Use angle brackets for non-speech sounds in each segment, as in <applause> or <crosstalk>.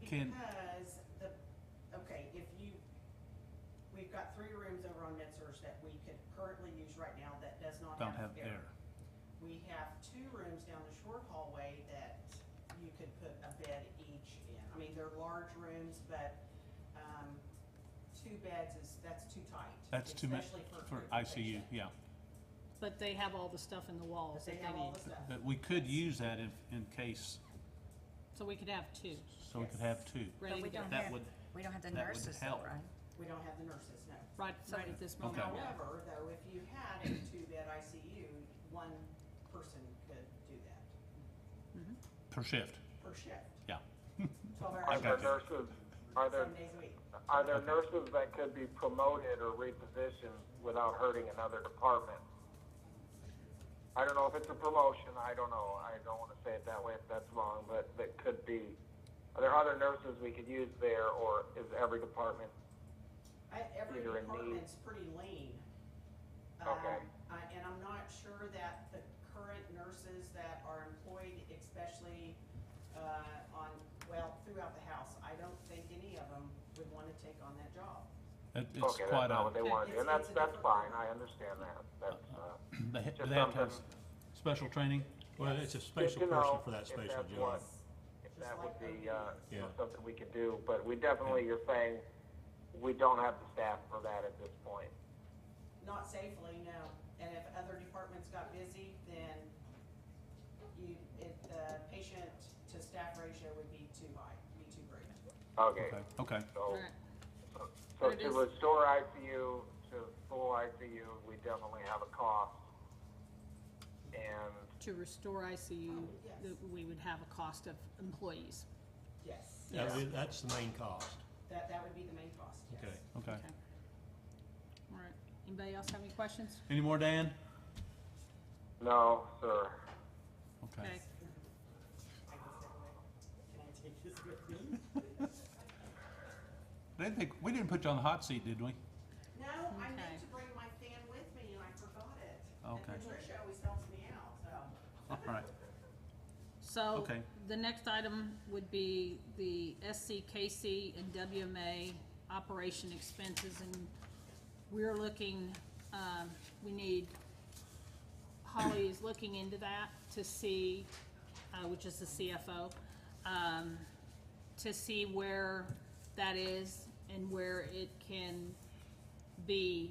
Can- Because the, okay, if you, we've got three rooms over on MedSurg that we could currently use right now that does not don't have have air. air. We have two rooms down the short hallway that you could put a bed each in. I mean, they're large rooms, but, um, two beds is, that's too tight. That's too much especially a for group ICU, patient. yeah. But they have all the stuff in the walls But they that they have all the need, stuff. But we could use that if, in case, so we could have two, so we could have two. ready we to go, don't That have- would, We don't have the That would nurses though, help. right? We don't have the nurses, no. right, So- right at this moment. Okay. However, though, if you had a two-bed ICU, one person could do that per shift, per shift. yeah. Twelve I Are hours, got there you. nurses, are there, seven days a week. are there nurses that could be promoted or repositioned without hurting another department? I don't know if it's a promotion, I don't know, I don't wanna say it that way if that's wrong, but that could be. Are there other nurses we could use there, or is every department, I, every Either in need. department's pretty lean. Um, Okay. I, and I'm not sure that the current nurses that are employed, especially, uh, on, well, throughout the house, I don't think any of them would wanna take on that job. It- It's okay, that's quite not what a, they wanna do, and that's, It's- it's a that's different- fine, I understand that, that's, uh. they ha- just they have to have something- special training? Well, it's a Just special to person know for that if special that's job. what- If that would be, uh, you know, Yeah. something we could do, but we definitely, you're saying, we don't have the staff for that at this point. Not safely, no. And if other departments got busy, then you, if the patient to staff ratio would be too high, be too great. Okay, Okay, okay, so, Right. so But it to is- restore ICU to full ICU, we definitely have a cost. And, To restore ICU, Oh, Yes. that we would have a cost of employees, Yes. That is- That's the main cost, That, that would be the main cost, yes. okay. okay. okay? All right, anybody else have any questions? Any more, Dan? no, sir, Okay. Okay, I can stay away. Can I take this with me? They think, we didn't put you on the hot seat, did <laughs> we? No, I meant Okay. to bring my fan with me and I forgot it. Okay. And Patricia always helps me out, so. All right, so, Okay. the next item would be the SCKC and WMA operation expenses, and we're looking, um, we need, Holly is looking into that to see, uh, which is the CFO, um, to see where that is and where it can be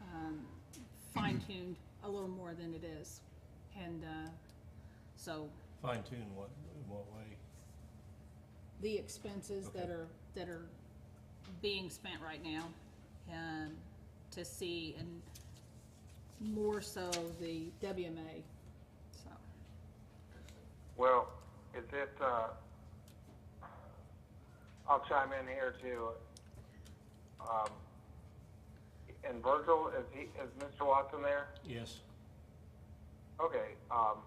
um, fine-tuned a little more than it is. And uh, so Fine tune what, in what way? the expenses that Okay. are, that are being spent right now, um, to see, and more so the WMA, so. well, is it, uh, I'll chime in here too. Um, and Virgil, is he, is Mr. Watson there? Yes, Okay, um,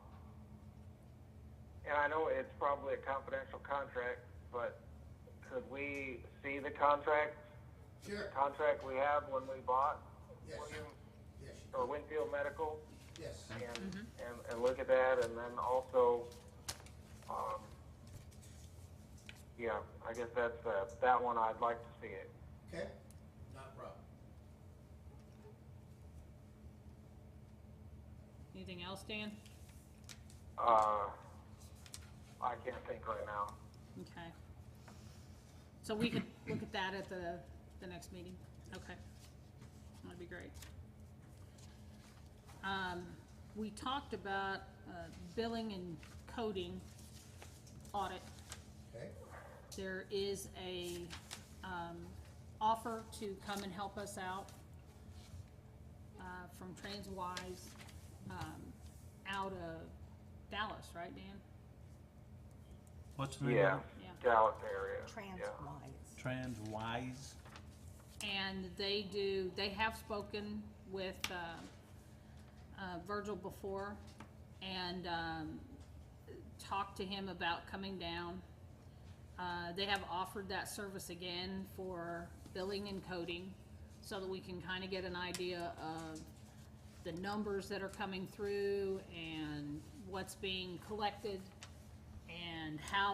and I know it's probably a confidential contract, but could we see the contract? Sure, Contract we have when we bought Yes. William, yes, you- or Winfield Medical? yes. and, and, and look at that, and then also, um, yeah, I guess that's, uh, that one I'd like to see it. Okay, not a problem. Anything else, Dan? Uh, I can't think right now. Okay. So we could look at that at the, the next meeting, okay? That'd be great. Um, we talked about, uh, billing and coding audit. Okay, There is a, um, offer to come and help us out, uh, from Transwise, um, out of Dallas, right, Dan? What's the name Yeah, of Yeah. Dallas area, yeah. Trans-wise. it? Transwise? And they do, they have spoken with, uh, uh, Virgil before and, um, talked to him about coming down. Uh, they have offered that service again for billing and coding so that we can kind of get an idea of the numbers that are coming through and what's being collected and how